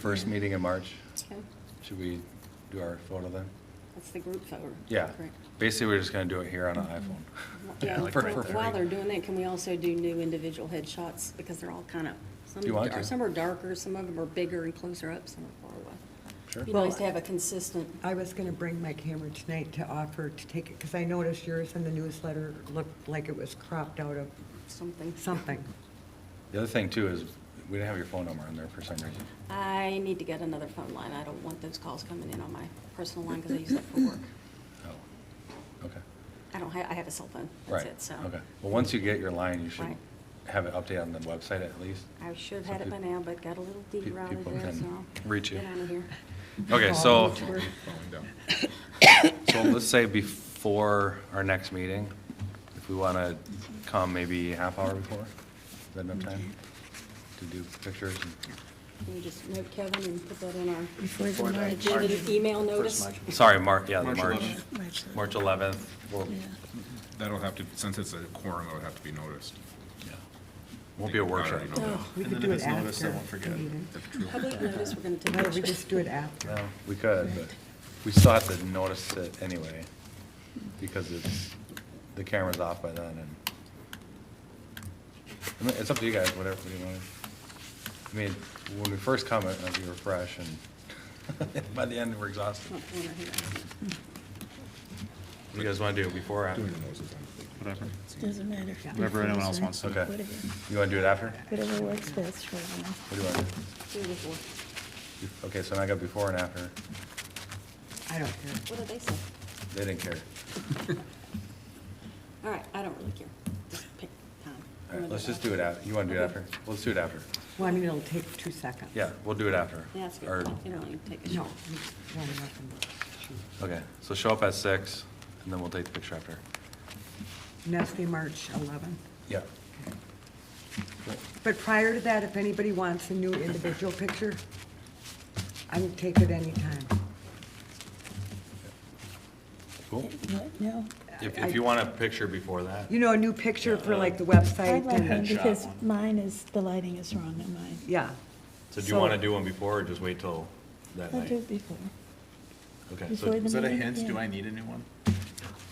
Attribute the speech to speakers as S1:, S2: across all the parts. S1: First meeting in March,
S2: Okay,
S1: should we do our photo then?
S2: That's the group photo.
S1: Yeah,
S2: correct.
S1: basically, we're just gonna do it here on an iPhone.
S2: Yeah,
S1: Like for-
S2: well,
S1: for free.
S2: While they're doing that, can we also do new individual headshots, because they're all kind of, some,
S1: You want
S2: dar-
S1: to.
S2: some are darker, some of them are bigger and closer up, some are far away. uh,
S1: Sure.
S2: Be nice to have a consistent,
S3: I was going to bring my camera tonight to offer to take it, because I noticed yours in the newsletter looked like it was cropped out of
S2: something.
S3: something.
S1: The other thing too is, we didn't have your phone number on there for some reason.
S2: I need to get another phone line, I don't want those calls coming in on my personal line, because I use that for work.
S1: Oh, okay.
S2: I don't have, I have a cell phone, that's
S1: Right,
S2: it, so.
S1: okay. Well, once you get your line, you should
S2: Right.
S1: have it updated on the website at least.
S2: I should
S1: So
S2: have had it by
S1: peop-
S2: now, but got a little
S1: pe-
S2: derailed
S1: people
S2: there,
S1: can
S2: so. I'll
S1: Reach you.
S2: Get out of here.
S1: Okay, so,
S2: Sure.
S1: so let's say before our next meeting, if we wanna come maybe half hour before, is that enough time? To do pictures and
S2: Can we just note Kevin and put that in our
S4: Before the March,
S2: agenda email notice?
S1: Sorry, March, yeah, the
S5: March
S1: March,
S5: 11th.
S4: March,
S1: March 11th. We'll-
S4: yeah.
S5: That'll have to, since it's a quorum, it'll have to be noticed.
S1: yeah. Won't be a workshop.
S5: Already know that.
S2: Oh,
S3: We could do it after. the meeting.
S2: Public notice, we're going to
S3: No,
S2: take
S3: we
S2: pictures.
S3: just do it after.
S1: Well, we could, but we still have to notice it anyway, because it's, the camera's off by then, and I mean, it's up to you guys, whatever you want. I mean, when we first come, it might be refresh, and by the end, we're exhausted.
S2: Not one or here.
S1: What do you guys want to do, before or after?
S5: Doing the noses on-
S6: Whatever.
S4: Doesn't matter.
S6: Whatever anyone else wants to do.
S1: Okay.
S4: Whatever
S1: You want to do it after?
S4: whatever works best for everyone.
S1: What do you want to do?
S2: Do it before.
S1: Bef- Okay, so now I got before and after.
S3: I don't care.
S2: What did they say?
S1: They didn't care.
S2: All right, I don't really care. Just pick time.
S1: All right, let's just do it after. You want to do it after? Let's do it after.
S3: Well, I mean, it'll take two seconds.
S1: Yeah, we'll do it after.
S2: Yeah, that's
S1: Or-
S2: good. It'll only take a
S3: No.
S2: shot.
S3: we want nothing but shoot.
S1: Okay, so show up at six, and then we'll take the picture after.
S3: And that's the March 11.
S1: Yeah.
S3: But prior to that, if anybody wants a new individual picture, I would take it anytime.
S1: Cool.
S4: What? No.
S1: If, if you want a picture before that,
S3: You know, a new picture for like the
S4: I'd
S3: website
S4: like one
S3: and,
S4: because mine is, the lighting is wrong on mine.
S3: yeah.
S1: so do you want to do one before or just wait till that
S4: I'll do it
S1: night?
S4: before.
S1: Okay, so,
S4: before the
S6: Is that a
S4: meeting,
S6: hint?
S4: yeah.
S6: Do I need a new one?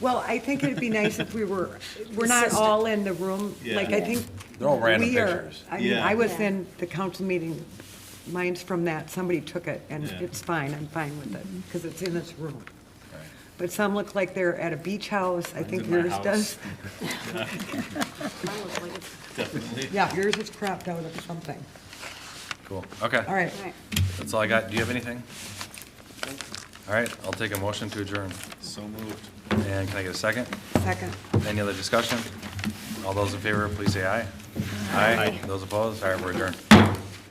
S3: Well, I think it'd be nice if we were, we're not all in the room, like, I
S4: Yeah.
S3: think.
S1: They're all random
S3: we are-
S1: pictures.
S3: I mean, I
S6: Yeah.
S3: was
S2: Yeah.
S3: in the council meeting, mine's from that, somebody took it, and
S6: Yeah.
S3: it's fine, I'm fine with it, because it's in this room.
S1: all right.
S3: But some look like they're at a beach house, I think
S6: in my
S3: yours
S6: house.
S3: does.
S2: Mine looks like it's,
S6: Definitely.
S3: Yeah, yours is cropped out of something.
S1: cool, okay.
S3: All right,
S2: all right.
S1: That's all I got. Do you have anything? All right, I'll take a motion to adjourn.
S6: So moved.
S1: And can I get a second?
S3: second.
S1: Any other discussion? All those in favor, please say aye. Aye. Those opposed? All right, we're adjourned.